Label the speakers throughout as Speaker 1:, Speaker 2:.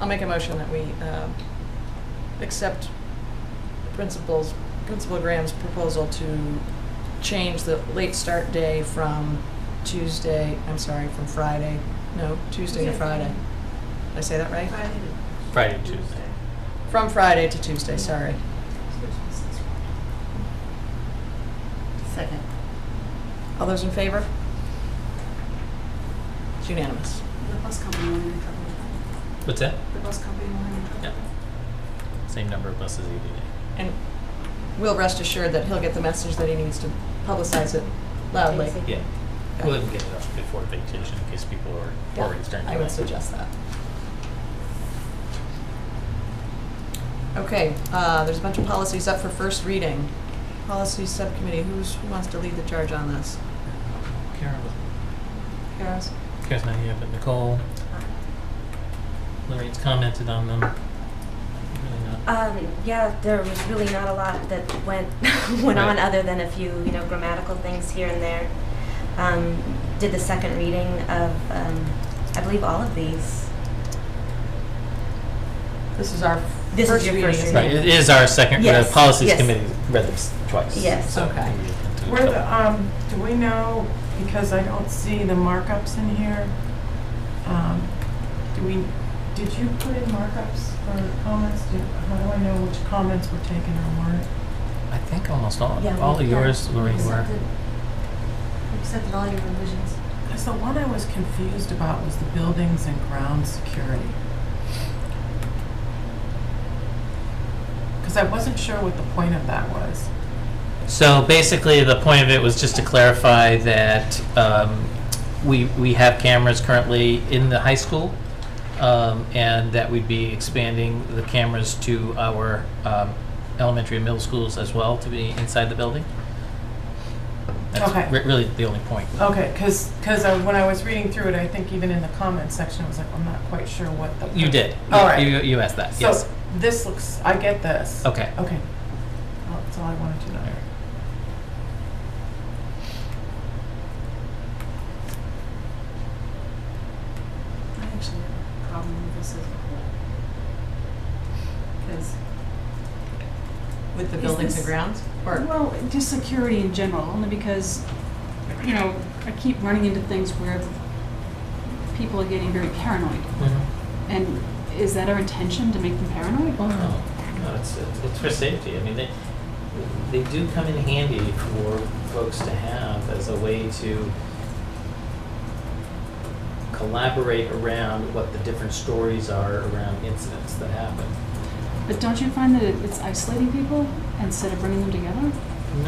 Speaker 1: I'll make a motion that we um, accept principals, Principal Graham's proposal to change the late start day from Tuesday, I'm sorry, from Friday, no, Tuesday to
Speaker 2: Tuesday.
Speaker 1: Friday. Did I say that right?
Speaker 2: Friday
Speaker 3: Friday,
Speaker 2: to
Speaker 3: Tuesday.
Speaker 1: From Friday to Tuesday, sorry.
Speaker 4: Second.
Speaker 1: All those in favor? It's unanimous.
Speaker 2: The bus company wanted in trouble with
Speaker 3: What's that?
Speaker 2: that. The bus company wanted in trouble
Speaker 3: Yeah. Same number of buses either day.
Speaker 1: And we'll rest assured that he'll get the message that he needs to publicize it loudly.
Speaker 4: Easy.
Speaker 3: Yeah. We'll even get it off before vacation in case people are already starting to.
Speaker 1: I would
Speaker 3: like-
Speaker 1: suggest that. Okay, uh, there's a bunch of policies up for first reading. Policy Subcommittee, who's, who wants to lead the charge on this?
Speaker 3: Karen was
Speaker 1: Kara's?
Speaker 3: Karen's not here, but Nicole. Lorraine's commented on them. Really not.
Speaker 5: Um, yeah, there was really not a lot that went went on
Speaker 3: Right.
Speaker 5: other than a few, you know, grammatical things here and there. Um, did the second reading of, um, I believe, all of these.
Speaker 1: This is our
Speaker 5: This is
Speaker 1: first
Speaker 5: your
Speaker 1: reading.
Speaker 5: first
Speaker 1: isn't
Speaker 3: Right,
Speaker 1: it?
Speaker 3: it is our second, the
Speaker 5: Uh, Yes,
Speaker 3: Policies
Speaker 5: yes.
Speaker 3: Committee read them s- twice.
Speaker 5: Yes.
Speaker 3: so
Speaker 1: Okay.
Speaker 3: we can do a
Speaker 6: Where the,
Speaker 3: couple.
Speaker 6: um, do we know, because I don't see the markups in here, um, do we, did you put in markups for comments? Do- How do I know which comments were taken or weren't?
Speaker 3: I think almost all,
Speaker 5: Yeah,
Speaker 3: all
Speaker 5: we-
Speaker 3: of
Speaker 5: yeah.
Speaker 3: yours, Lorraine, were.
Speaker 2: Accepted. Accepted all your revisions.
Speaker 6: Because the one I was confused about was the buildings and ground security. Because I wasn't sure what the point of that was.
Speaker 3: So basically, the point of it was just to clarify that um, we, we have cameras currently in the high school, um, and that we'd be expanding the cameras to our um, elementary and middle schools as well, to be inside the building.
Speaker 6: Okay.
Speaker 3: That's re- really the only point.
Speaker 6: Okay, because, because when I was reading through it, I think even in the comments section, I was like, I'm not quite sure what the.
Speaker 3: You did.
Speaker 6: All right.
Speaker 3: You, you asked that, yes.
Speaker 6: So this looks, I get this.
Speaker 3: Okay.
Speaker 6: Okay. Well, That's all I wanted to know.
Speaker 2: I actually have a problem with this as well. Because
Speaker 1: With the
Speaker 2: Is
Speaker 1: buildings and
Speaker 2: this-
Speaker 1: grounds? Or,
Speaker 2: Well, just security in general, only because, you know, I keep running into things where people are getting very paranoid.
Speaker 3: Mhm.
Speaker 2: And is that our intention, to make them paranoid?
Speaker 3: Wow. No, it's, it's it's for safety. I mean, they, they do come in handy for folks to have as a way to collaborate around what the different stories are around incidents that happen.
Speaker 2: But don't you find that it- it's isolating people instead of bringing them together? Mm-hmm.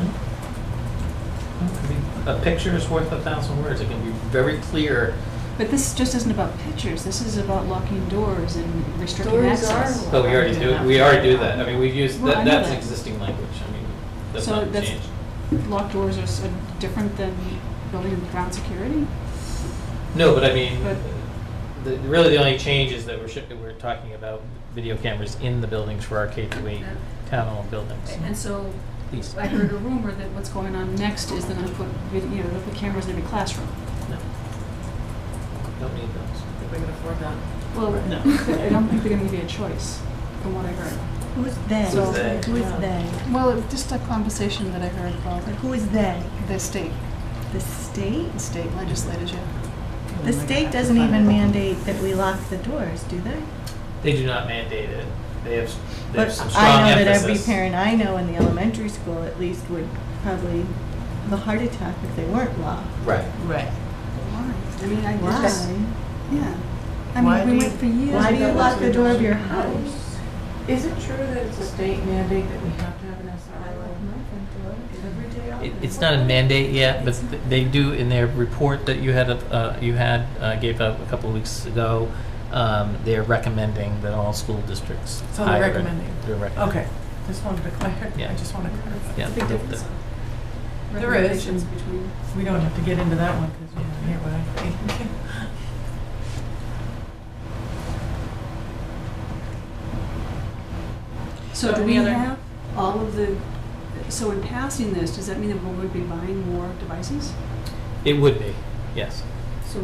Speaker 3: No? I mean, A picture is worth a thousand words. It can be very clear.
Speaker 2: But this just isn't about pictures, this is about locking doors and restricting
Speaker 1: Doors are
Speaker 2: access.
Speaker 3: But we already do, we already do that. I mean, we've used,
Speaker 2: Well, I
Speaker 3: that
Speaker 2: know
Speaker 3: that's
Speaker 2: that.
Speaker 3: existing language. I mean, that's
Speaker 2: So
Speaker 3: not
Speaker 2: that's-
Speaker 3: changed.
Speaker 2: Locked doors are s- different than building and ground security?
Speaker 3: No, but I mean,
Speaker 2: But-
Speaker 3: the, really the only change is that we're, shi- we're talking about video cameras in the buildings for our K through eight town-owned buildings.
Speaker 2: And so
Speaker 3: Please.
Speaker 2: I heard a rumor that what's going on next is they're gonna put, vid- you know, they'll put cameras in every classroom.
Speaker 3: No. Don't need those.
Speaker 1: I think we can afford that.
Speaker 2: Well,
Speaker 3: No.
Speaker 2: I don't think they're gonna give you a choice, from what I heard.
Speaker 4: Who's they?
Speaker 2: So-
Speaker 4: Who is they?
Speaker 2: Well, just a conversation that I heard about
Speaker 4: Like, who is they?
Speaker 2: the state,
Speaker 4: The state?
Speaker 2: state legislature.
Speaker 4: The state doesn't even mandate that we lock the doors, do they?
Speaker 3: They do not mandate it. They have, s- they have
Speaker 4: But
Speaker 3: some
Speaker 4: I
Speaker 3: strong
Speaker 4: know that
Speaker 3: emphasis.
Speaker 4: every parent I know in the elementary school at least would probably have a heart attack if they weren't locked.
Speaker 3: Right.
Speaker 6: Right.
Speaker 2: Why? I mean, I
Speaker 4: Why?
Speaker 2: just, yeah. I
Speaker 6: Why
Speaker 2: mean,
Speaker 6: do
Speaker 2: we went
Speaker 6: you-
Speaker 2: for years.
Speaker 4: Why do you
Speaker 2: without
Speaker 4: lock the
Speaker 2: locking
Speaker 4: door of your
Speaker 2: doors.
Speaker 4: house?
Speaker 6: Is it true that it's a state mandate that we have to have an SRO every day? out
Speaker 3: It,
Speaker 6: there?
Speaker 3: it's not a mandate yet, but th- they do in their report that you had, uh, you had, uh, gave out a couple of weeks ago, um, they're recommending that all school districts
Speaker 6: So they're
Speaker 3: hire it.
Speaker 6: recommending.
Speaker 3: They're recommending.
Speaker 6: Okay, just wanted to clarify,
Speaker 3: Yeah.
Speaker 6: I just want to clarify.
Speaker 3: Yeah.
Speaker 2: Big
Speaker 3: the- the-
Speaker 2: difference.
Speaker 6: There is.
Speaker 2: Recommendations between.
Speaker 6: We don't have to get into that one because you don't hear what I think.
Speaker 2: So
Speaker 1: So
Speaker 2: do
Speaker 1: any
Speaker 2: we
Speaker 1: other-
Speaker 2: have all of the, so in passing this, does that mean that we would be buying more devices?
Speaker 3: It would be, yes.
Speaker 2: So